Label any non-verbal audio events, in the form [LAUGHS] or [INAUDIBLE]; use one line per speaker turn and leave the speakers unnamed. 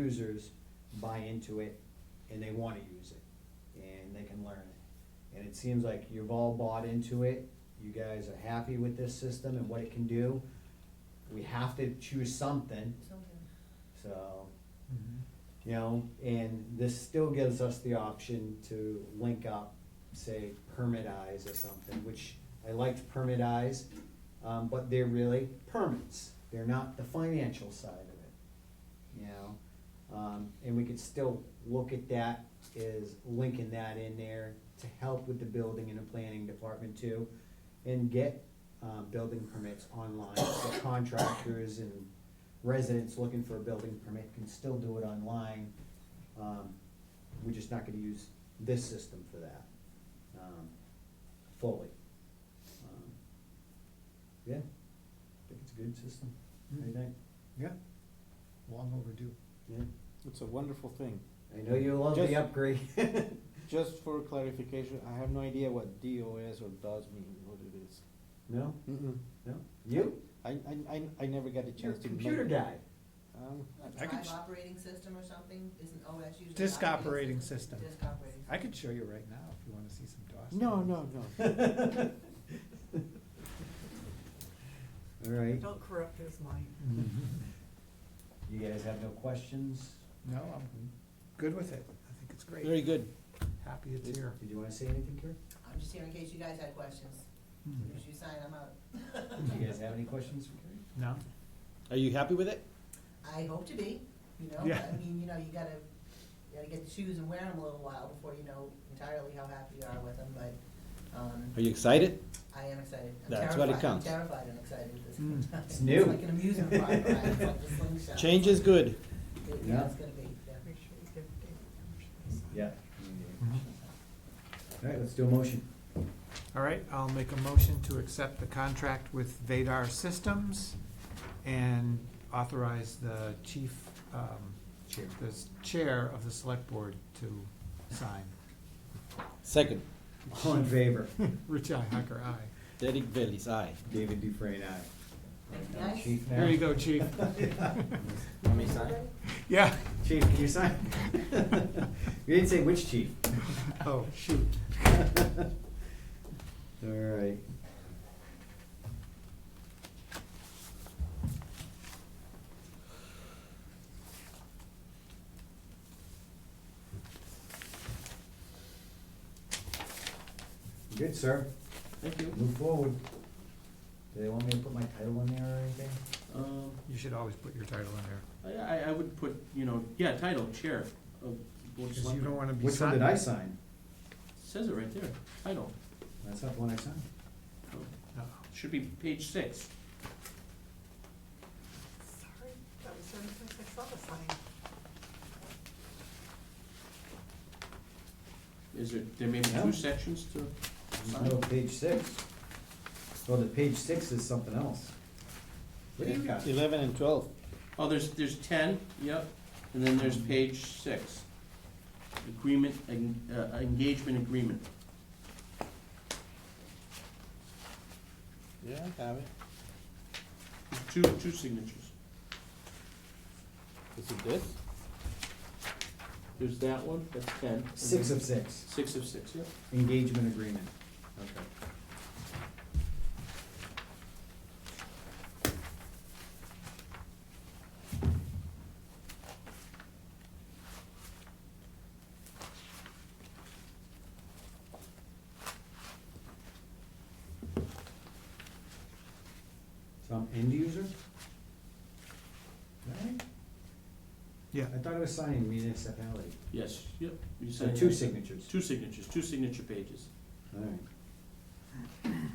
users buy into it and they wanna use it and they can learn it. And it seems like you've all bought into it, you guys are happy with this system and what it can do. We have to choose something, so, you know, and this still gives us the option to link up, say, permitize or something, which I liked permitize, um, but they're really permits. They're not the financial side of it, you know? Um, and we could still look at that as linking that in there to help with the building and the planning department too, and get, uh, building permits online, so contractors and residents looking for a building permit can still do it online. Um, We're just not gonna use this system for that, um, fully. Um, Yeah, I think it's a good system, What do you think?
Yeah, long overdue.
Yeah,
It's a wonderful thing.
I know you love the
Just-
upgrade. [LAUGHS]
Just for clarification, I have no idea what DOS or DOS mean, what it is.
No,
Mm-mm.
no, you,
I, I, I, I never got
you're a
a chance to.
computer
look.
guy. [LAUGHS]
Um,
I
A
could
drive
sh-
operating system or something, isn't OS usually?
Disk operating system.
Disk operating.
I could show you right now if you wanna see some DOS.
No,
things.
no, no.
All right,
Don't corrupt his mind.
[LAUGHS] you guys have no questions?
No, I'm good with it. I think it's
Very
great.
good.
Happy it's here.
Did you wanna say anything,
[LAUGHS]
Kurt?
I'm just here in case you guys had questions,
Hmm.
Hmm.
as you sign, I'm out.
Do you guys have any questions for Carrie?
No?
Are you happy with it?
[LAUGHS] I hope to be, you know,
Yeah.
I mean, you know, you gotta, you gotta get the shoes and wear them a little while before you know entirely how happy you are with them, but, um,
Are you excited?
I am excited. I'm
That's what it
terrified.
counts.
I'm terrified and excited at the same
Mm.
time. [LAUGHS]
It's new.
like an amusement park, ride. it's like a slingshot.
Change is good.
It-
Yeah.
Yeah, it's gonna be, yeah.
Make sure you give Dave permission.
Yeah. All right, let's do a motion.
All right, I'll make a motion to accept the contract with Vadar Systems and authorize the chief, um,
Chair.
the s- chair of the select board to sign.
Second,
All in favor? [LAUGHS]
Rich I. Hacker, aye.
Derek Bailey's aye.
David Dufresne, aye.
Thank you,
Now,
guys.
Chief, now-
There you go,
[LAUGHS]
chief.
Want me to sign?
Yeah. [LAUGHS]
Chief, can you sign? You didn't say which chief.
Oh, shoot.
All right. Good, sir.
Thank you.
Move forward. Do they want me to put my title in there or anything?
Um,
You should always put your title in there.
I, I, I would put, you know, yeah, title, chair of board
Because
of
you
selectmen.
don't want to be.
Which one did
sign-
I sign?
Says it right there, title,
That's not the one I signed.
Oh,
Uh-oh.
should be page six.
Sorry, that was the only place I saw the sign.
Is it, there may be
Yeah.
two sections to
There's
sign?
No, page six. Well, the page six is something else. What do you got?
Eleven and twelve.
Oh, there's, there's ten, yep, and then there's page six. Agreement, en- uh, engagement agreement.
Yeah, I have it.
Two, two signatures.
Is it this?
There's that one, that's ten. and
Six
then-
of six,
Six of six, yep.
engagement agreement. Okay. So I'm end user? Right?
Yeah.
I thought it was signing municipality.
Yes, yep. You
So
sign
two
that.
signatures.
Two signatures, two signature pages.
Alright.